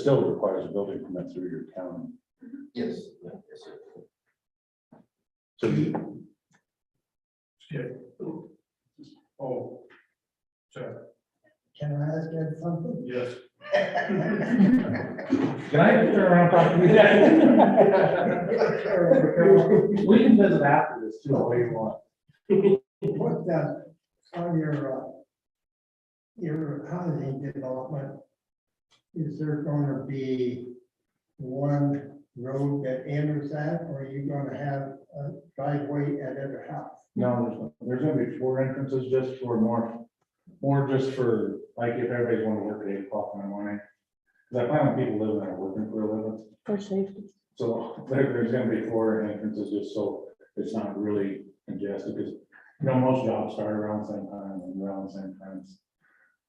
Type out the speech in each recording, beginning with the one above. still requires a building permit through your town. Yes. yeah, yes, sir. So you, Oh. Check, Can I ask you something? yes. Can I turn around and talk to you? We can visit after this too, all you want. What the, on your, uh, your housing development, is there gonna be one road that enters that, or are you gonna have a driveway at every house? no, there's, no- there's gonna be four entrances just for more, more just for, like, if everybody's wanna work at eight o'clock in the morning. Cause I find when people live there working for a living, For safety. so there- there's gonna be four entrances just so it's not really congested, because, you know, most jobs start around the same time and around the same times.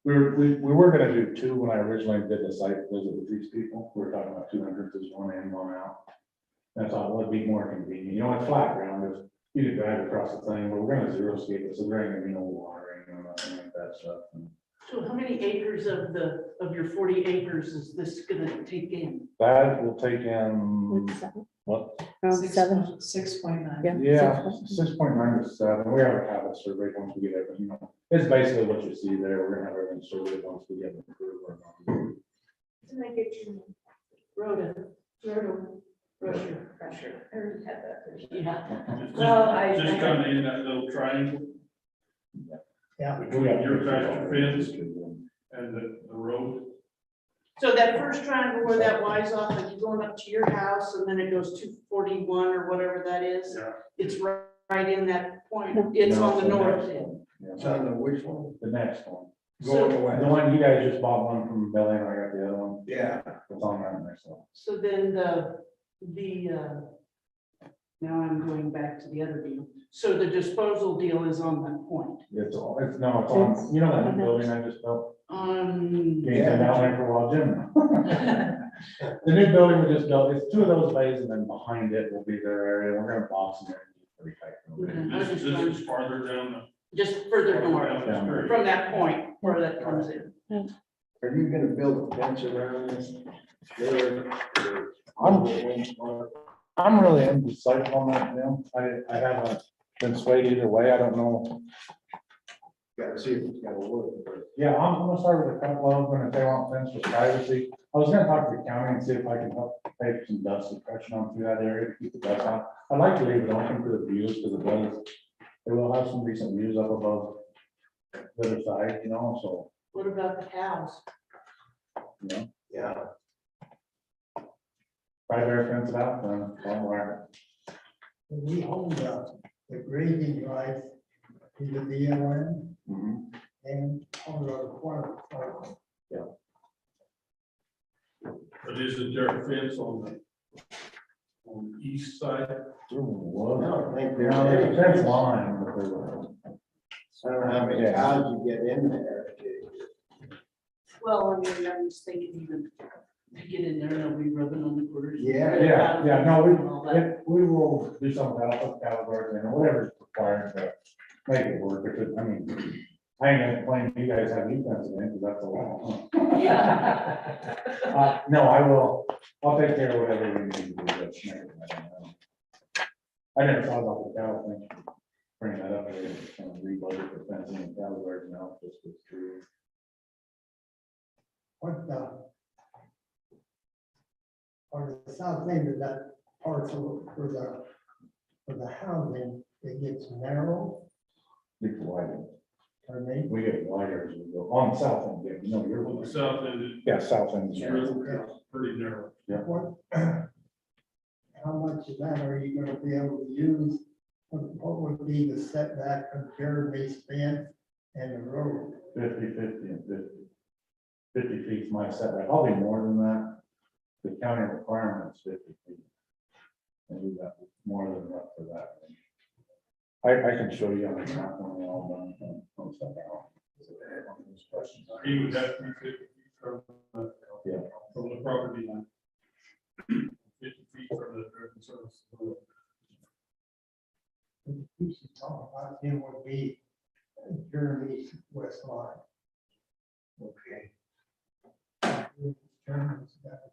We were, we, we were gonna do two when I originally did the site visit with these people, we were talking about two entrances, one in, one out. That's all, would be more convenient, you know, it's flat ground, there's, you can drive across the thing, but we're gonna zero skate it, so there ain't gonna be no watering or nothing like that stuff. So how many acres of the, of your forty acres is this gonna take in? That will take in, Seven. Mm. what, Around Six seven, point- Six point nine. yeah. Yeah, six months. six point nine to seven, we already have a survey once we get it, but you know, it's basically what you see there, we're gonna have everything surveyed once we get it approved. or not. Can I get your name? Rhoda, Rhoda Rhoda, Crusher. I already had that. yeah. Well, I- Just kind of in that little triangle Yeah, We got- Your guys' fence? and the, the road. So that first triangle where that Y's off, like you're going up to your house and then it goes to forty-one or whatever that is. Yeah. It's ri- right in that point. It's on the north end. it's Yeah, on the which one? The next one, Going So, the away. one you guys just bought one from Belly and I got the other one, Yeah, it's on that next one. so then the, the, uh, now I'm going back to the other deal. So the disposal deal is on that point. It's all, it's, no, it's on, you know that new building I just built, Um, you can down there for a while, Jim. The new building we just built, it's two of those bays and then behind it will be their area, we're gonna box them in. pretty tight. Mhm. This, this is farther down just the. further north. down the street. from that point where that comes in. Are you gonna build a fence around this? There, or- I'm- I'm really indecisive on that now. I, I haven't been swayed either way. I don't know. Gotta see if it's gonna work, but Yeah, I'm gonna start with a couple of them if they want fence for privacy. I was gonna talk to the county and see if I can help take some dust suppression on through that area to keep the dust out. I'd like to leave it open for the views because it does, it will have some decent views up above the other side, you know, so, What about the cows? you know, yeah. right there fence it out then somewhere. we own the, the grading rights to the BLM Mhm. and on the water. park. But isn't there a fence on the, on the east side? I don't think there's Yeah, there's any a fence fence. line. but there- I don't know how many Yeah. cows you get in there. Well, I mean, I'm just thinking even to get in there, they'll be rubbing on the quarters. Yeah, Yeah, yeah, no, we, All that. if we will do something about the caliber and whatever's required to make it work, if it- I mean, I ain't gonna complain, if you guys have defense in, because that's a lot. Uh, no, I will, I'll take care of whatever we need to do. that's make it better. I never thought about the cattle thing, bring that up, and kind of rebudget for fencing and caliber now, this was true. What the? On the south end of that parcel for the, for the housing, it gets narrow, It's wider, or maybe. we get wider as we go, on the south end, yeah, you know, you're. On the south end, Yeah, south end. it's is- really pretty narrow. What? How much of that are you gonna be able to use? What what would be the setback from Jeremy's fence and the road? 50, 50, and fifty. Fifty feet's my setback, probably more than that. The county requirement is fifty feet. And we got more than enough for that. I, I can show you on the map when we're all done. um, on stuff out. He would have to be fifty feet from the. Yeah. From the property line. Fifty feet from the driven surface. We should talk about it would be Jeremy's west line. Okay. terms.